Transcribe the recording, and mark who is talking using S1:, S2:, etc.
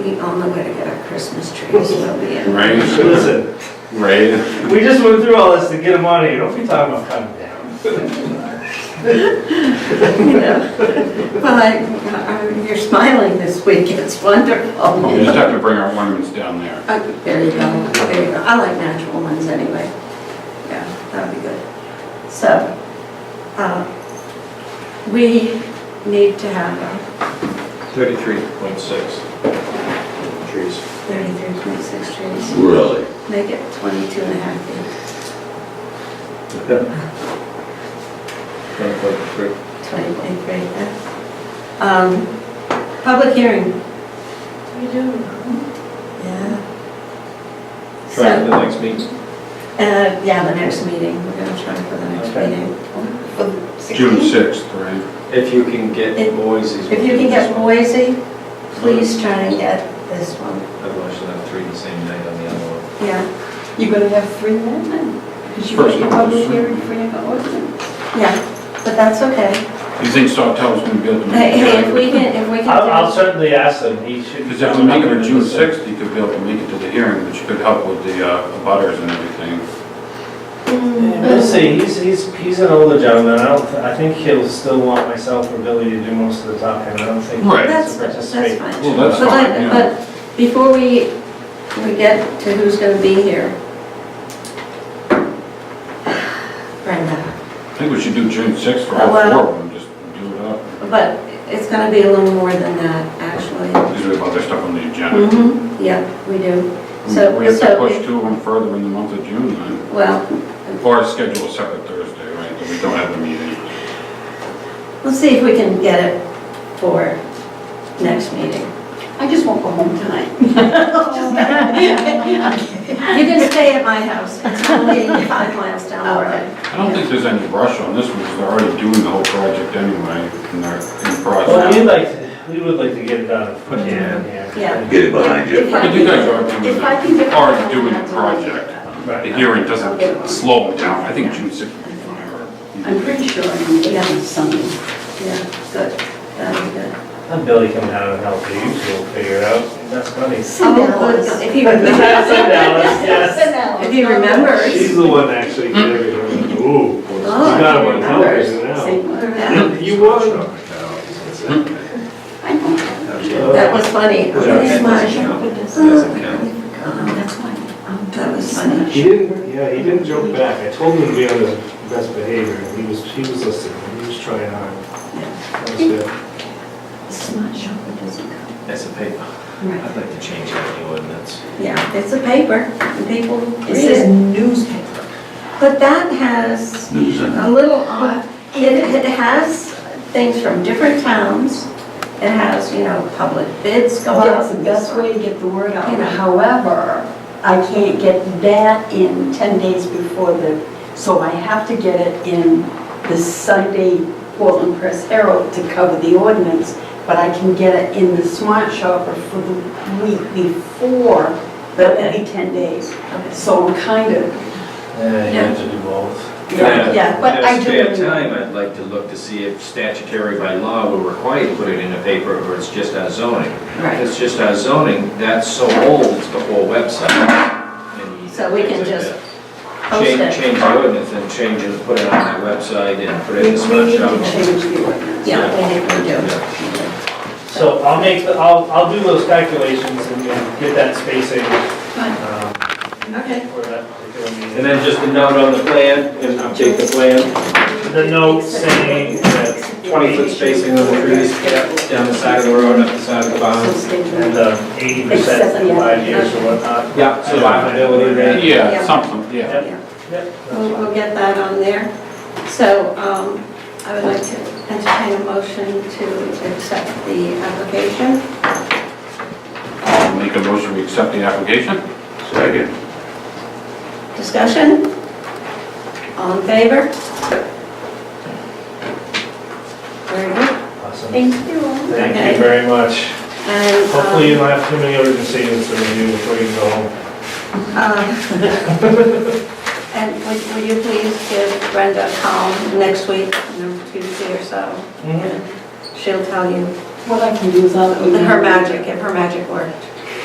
S1: We all know where to get our Christmas trees, so we,
S2: Right,
S3: Listen,
S2: right.
S3: we just went through all this to get them on here, don't be talking about coming down.
S1: you know. Well, I- I, you're smiling this week, it's
S2: We
S1: wonderful.
S2: just have to bring our ornaments down there.
S1: Uh, There you go, there you go. I like natural ones anyway. Yeah, that'd be good. So, uh, we need to have a
S4: Thirty-three point six. Trees.
S1: 33.6 trees,
S5: Really?
S1: make it 22 and a half feet,
S4: Twenty-four,
S1: 20.3. uh, um, Public hearing. We do. Yeah.
S4: Try
S1: So,
S4: it the next meeting.
S1: uh, yeah, the next meeting, we're gonna try for the next
S4: Okay.
S1: meeting.
S2: June 6th, right?
S4: If you can get
S1: If-
S4: Moise's.
S1: If you can get Boise, please try and get this one,
S4: Otherwise you'll have three the same night on the other one.
S1: yeah,
S6: You're gonna have three then, then? Because you
S2: First
S6: got your
S2: of all,
S6: public
S2: sure.
S6: hearing for your ordinance.
S1: yeah, but that's okay.
S2: You think Sawtelle's gonna be able to
S1: Hey,
S2: make
S1: hey, if
S2: it?
S1: we can, if we can.
S3: I'll, I'll
S1: do-
S3: certainly ask them, he should.
S2: Because if we make it for June 6th, you could be able to make it to the hearing, which could help with the uh, butters and everything.
S1: Mm.
S3: Yeah, We'll see, he's, he's, he's an older gentleman, I don't, I think he'll still want myself or Billy to do most of the talking, I don't think. he
S2: Right.
S3: wants
S1: That's,
S3: to
S1: that's
S3: participate.
S1: fine.
S2: Well, that's
S1: But
S2: fine,
S1: like-
S2: yeah.
S1: But before we, we get to who's gonna be here. Brenda,
S2: I think we should do June 6th for all
S1: Well-
S2: four of them, just do it up.
S1: but it's gonna be a little more than that, actually.
S2: Because we have other stuff on the agenda.
S1: Mm-hmm. Yeah, we do. Mm-hmm. So,
S2: Mm-hmm. We have to
S1: so,
S2: push
S1: we-
S2: two of them further in the month of June, then.
S1: well,
S2: Or schedule a separate Thursday, right, that we don't have the meeting.
S1: Let's see if we can get it for next meeting.
S6: I just won't go home tonight.
S1: You can stay at my house, it's only five miles down the road.
S2: I don't think there's any rush on this one, because they're already doing the whole project anyway, and they're in
S3: Well,
S2: process.
S3: we'd like, to- we would like to get it done, put it in here.
S1: Yeah.
S5: Get it behind you.
S1: If I
S2: But you guys are doing
S1: If I can
S2: the,
S1: get-
S2: are doing the project. The
S3: Right.
S2: hearing doesn't slow them down. I think June 6th will be fine. or-
S6: I'm pretty sure I'm gonna get on Sunday.
S1: Yeah, good, that'll be good.
S3: Let Billy come down and help you, we'll figure it out, that's funny.
S1: Oh, good. If he remembers,
S3: Sit down, yes.
S1: if he remembers.
S7: She's the one actually did it. Ooh, you
S1: Oh,
S7: got him on
S1: she
S7: television now.
S6: Same word.
S1: Yeah,
S7: You won.
S6: I know.
S1: That was funny. Okay, Marcia.
S4: Doesn't count.
S6: Um, That's why. um,
S1: That was funny.
S7: He didn't, yeah, he didn't joke back. I told him to be on his best behavior, and he was, he was listening, he was trying hard. That was good.
S6: It's not shopper doesn't come.
S4: That's a paper. I'd like to change that in the ordinance.
S1: Yeah, it's a paper, and people
S6: It
S1: read
S6: says
S1: it.
S6: newspaper.
S1: But that has
S5: News and
S1: a little odd, it, it has things from different towns. It has, you know, public bids go out.
S6: That's the best way to get the word out.
S1: Yeah.
S6: However, I can't get that in 10 days before the, so I have to get it in the Sunday Portland Press Herald to cover the ordinance, but I can get it in the Smart Shopper for the week before, but only 10 days. So I'm kind of,
S3: Yeah, you have to do both.
S6: yeah, but I do.
S4: In a spare time, I'd like to look to see if statutory by law we're required to put it in a paper or it's just our zoning. If
S1: Right,
S4: it's just our zoning, that's so old, it's the whole website. and
S1: So we can
S4: things like
S1: just
S4: that.
S1: post
S4: Change,
S1: it.
S4: change the ordinance and change it, put it on the website and put it
S6: We
S4: in the
S6: we
S4: smart
S6: need
S4: shop.
S6: to change the ordinance.
S1: Yeah, we need to do.
S3: So I'll make, the I'll, I'll do those calculations and then get that spacing. um,
S1: Okay.
S3: for that particular meeting.
S4: And then just a note on the plan and update the plan,
S3: The note saying that
S4: twenty foot spacing on the trees, down the side of the road, up the side of the
S6: So
S4: barn.
S6: stay tuned.
S3: the um, eighty percent for five years or whatnot.
S4: Yeah, survivability rate.
S2: Yeah,
S1: Yeah.
S2: something, yeah.
S3: Yep,
S1: We'll,
S3: that's
S1: we'll get that on there. So, um, I would like to entertain a motion to accept the application.
S2: I'll make a motion, we accept the application.
S5: Second.
S1: Discussion? All in favor? Very good.
S3: awesome.
S1: Thank you.
S3: Thank
S1: Okay.
S3: you very much.
S1: And, um,
S3: Hopefully you don't have too many other decisions to review before you go home.
S1: um, And would, would you please give Brenda a call next week, you know, Tuesday or so?
S3: Mhm.
S1: She'll tell you
S6: What I can do is I'll.
S1: her magic, if her magic worked.